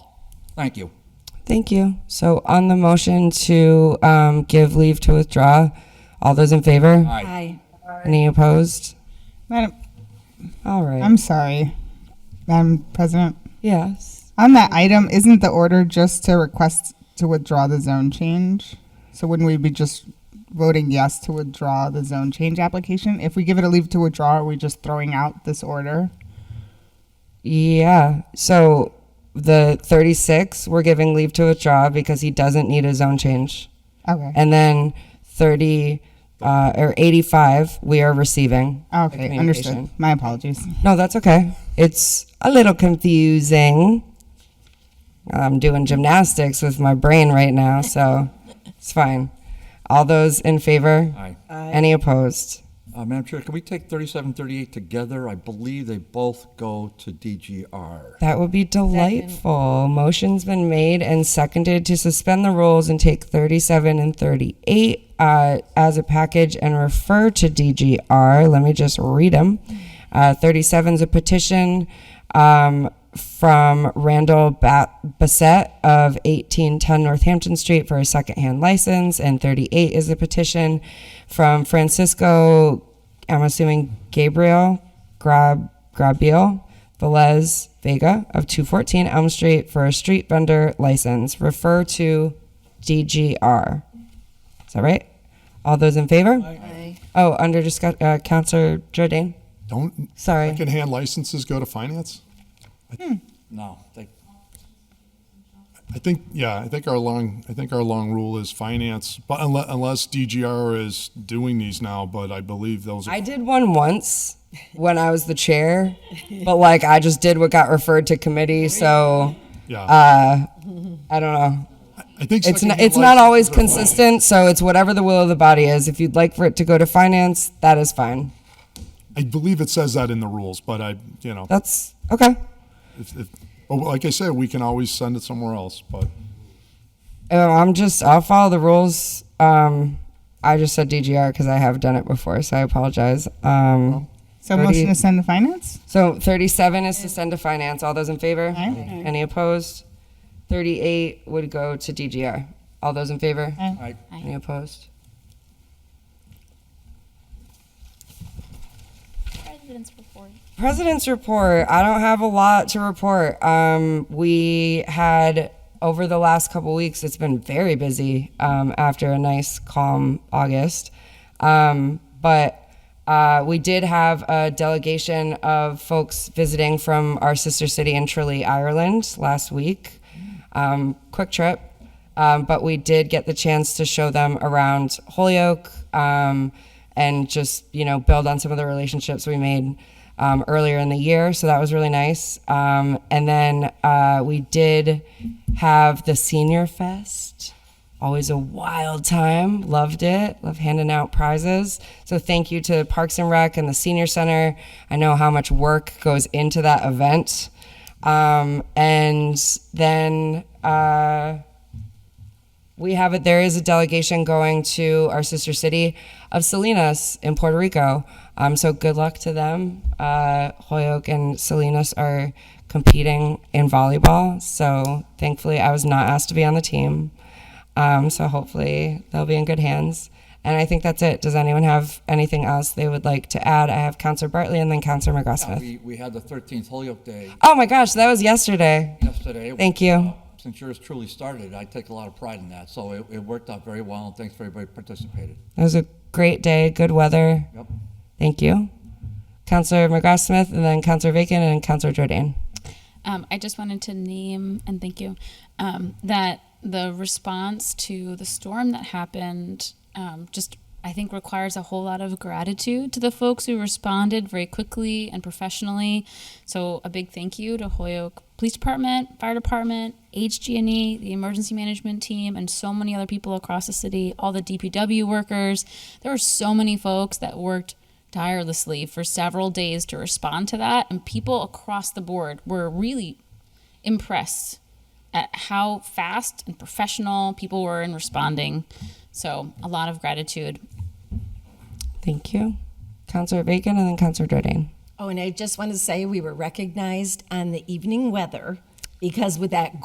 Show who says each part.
Speaker 1: Thank you.
Speaker 2: Thank you. So on the motion to um, give leave to withdraw, all those in favor?
Speaker 1: Aye.
Speaker 2: Any opposed?
Speaker 3: Madam,
Speaker 2: All right.
Speaker 3: I'm sorry, Madam President.
Speaker 2: Yes.
Speaker 3: On that item, isn't the order just to request to withdraw the zone change? So wouldn't we be just voting yes to withdraw the zone change application? If we give it a leave to withdraw, are we just throwing out this order?
Speaker 2: Yeah. So the 36, we're giving leave to withdraw because he doesn't need a zone change.
Speaker 3: Okay.
Speaker 2: And then 30 uh, or 85, we are receiving. the
Speaker 3: Okay, understood.
Speaker 2: communication.
Speaker 3: My apologies.
Speaker 2: No, that's okay. It's a little confusing. I'm doing gymnastics with my brain right now, so it's fine. All those in favor?
Speaker 1: Aye.
Speaker 2: Any opposed?
Speaker 1: Uh, Madam Chair, can we take 37, 38 together? I believe they both go to DGR.
Speaker 2: That would be delightful. Motion's been made and seconded to suspend the rules and take 37 and 38 uh, as a package and refer to DGR. Let me just read them. Uh, 37 is a petition um, from Randall ba- Bassett of 1810 Northampton Street for a secondhand license, and 38 is a petition from Francisco, I'm assuming Gabriel Grab Grabiel. Velez Vega of 214 Elm Street for a street vendor license. Refer to DGR. Is that right? All those in favor? Oh, under discuss, uh, Counselor Jordan.
Speaker 4: Don't
Speaker 2: Sorry.
Speaker 4: secondhand licenses go to finance?
Speaker 1: No, they,
Speaker 4: I think, yeah, I think our long, I think our long rule is finance, but unless, unless DGR is doing these now, but I believe those are.
Speaker 2: I did one once when I was the chair, but like I just did what got referred to committee, so
Speaker 4: Yeah,
Speaker 2: I don't know.
Speaker 4: I think.
Speaker 2: uh, It's not,
Speaker 4: secondhand
Speaker 2: it's not always
Speaker 4: licenses are fine.
Speaker 2: consistent, so it's whatever the will of the body is. If you'd like for it to go to finance, that is fine.
Speaker 4: I believe it says that in the rules, but I, you know,
Speaker 2: That's okay.
Speaker 4: if, if, but like I said, we can always send it somewhere else, but
Speaker 2: Oh, I'm just, I'll follow the rules. Um, I just said DGR because I have done it before, so I apologize. Um,
Speaker 3: So
Speaker 2: Thirty-
Speaker 3: motion to send to finance?
Speaker 2: so 37 is to send to finance. All those in favor?
Speaker 3: Aye.
Speaker 2: Any opposed? 38 would go to DGR. All those in favor?
Speaker 3: Aye.
Speaker 1: Aye.
Speaker 2: Any opposed?
Speaker 5: President's report.
Speaker 2: President's report. I don't have a lot to report. Um, we had over the last couple weeks, it's been very busy um, after a nice calm August. Um, but uh, we did have a delegation of folks visiting from our sister city in Tralee, Ireland last week. Um, quick trip um, but we did get the chance to show them around Holyoke um, and just you know build on some of the relationships we made um, earlier in the year. So that was really nice. Um, and then uh, we did have the Senior Fest. Always a wild time. Loved it. Love handing out prizes. So thank you to Parks and Rec and the Senior Center. I know how much work goes into that event. Um, and then. Uh, we have it. There is a delegation going to our sister city of Salinas in Puerto Rico. Um, so good luck to them. Uh, Holyoke and Salinas are competing in volleyball. So thankfully, I was not asked to be on the team. Um, so hopefully, they'll be in good hands. And I think that's it. Does anyone have anything else they would like to add? I have Counselor Bartley and then Counselor McGrath-Smith.
Speaker 1: uh, we, we had the 13th Holyoke Day
Speaker 2: Oh my gosh, that was yesterday.
Speaker 1: yesterday. Uh,
Speaker 2: Thank you.
Speaker 1: Since yours truly started, I take a lot of pride in that. So it, it worked out very well, and thanks for everybody who participated.
Speaker 2: It was a great day, good weather.
Speaker 1: Yep.
Speaker 2: Thank you. Counselor McGrath Smith, and then Counselor Vacan, and Counselor Jordan.
Speaker 6: Um, I just wanted to name and thank you um, that the response to the storm that happened um, just I think requires a whole lot of gratitude to the folks who responded very quickly and professionally. So a big thank you to Holyoke Police Department, Fire Department, HG&E, E, the emergency management team, and so many other people across the city. All the DPW workers. There were so many folks that worked tirelessly for several days to respond to that. And people across the board were really impressed at how fast and professional people were in responding. So, a lot of gratitude.
Speaker 2: Thank you. Counselor Vacan, and then Counselor Jordan.
Speaker 7: Oh, and I just want to say we were recognized on the evening weather because with that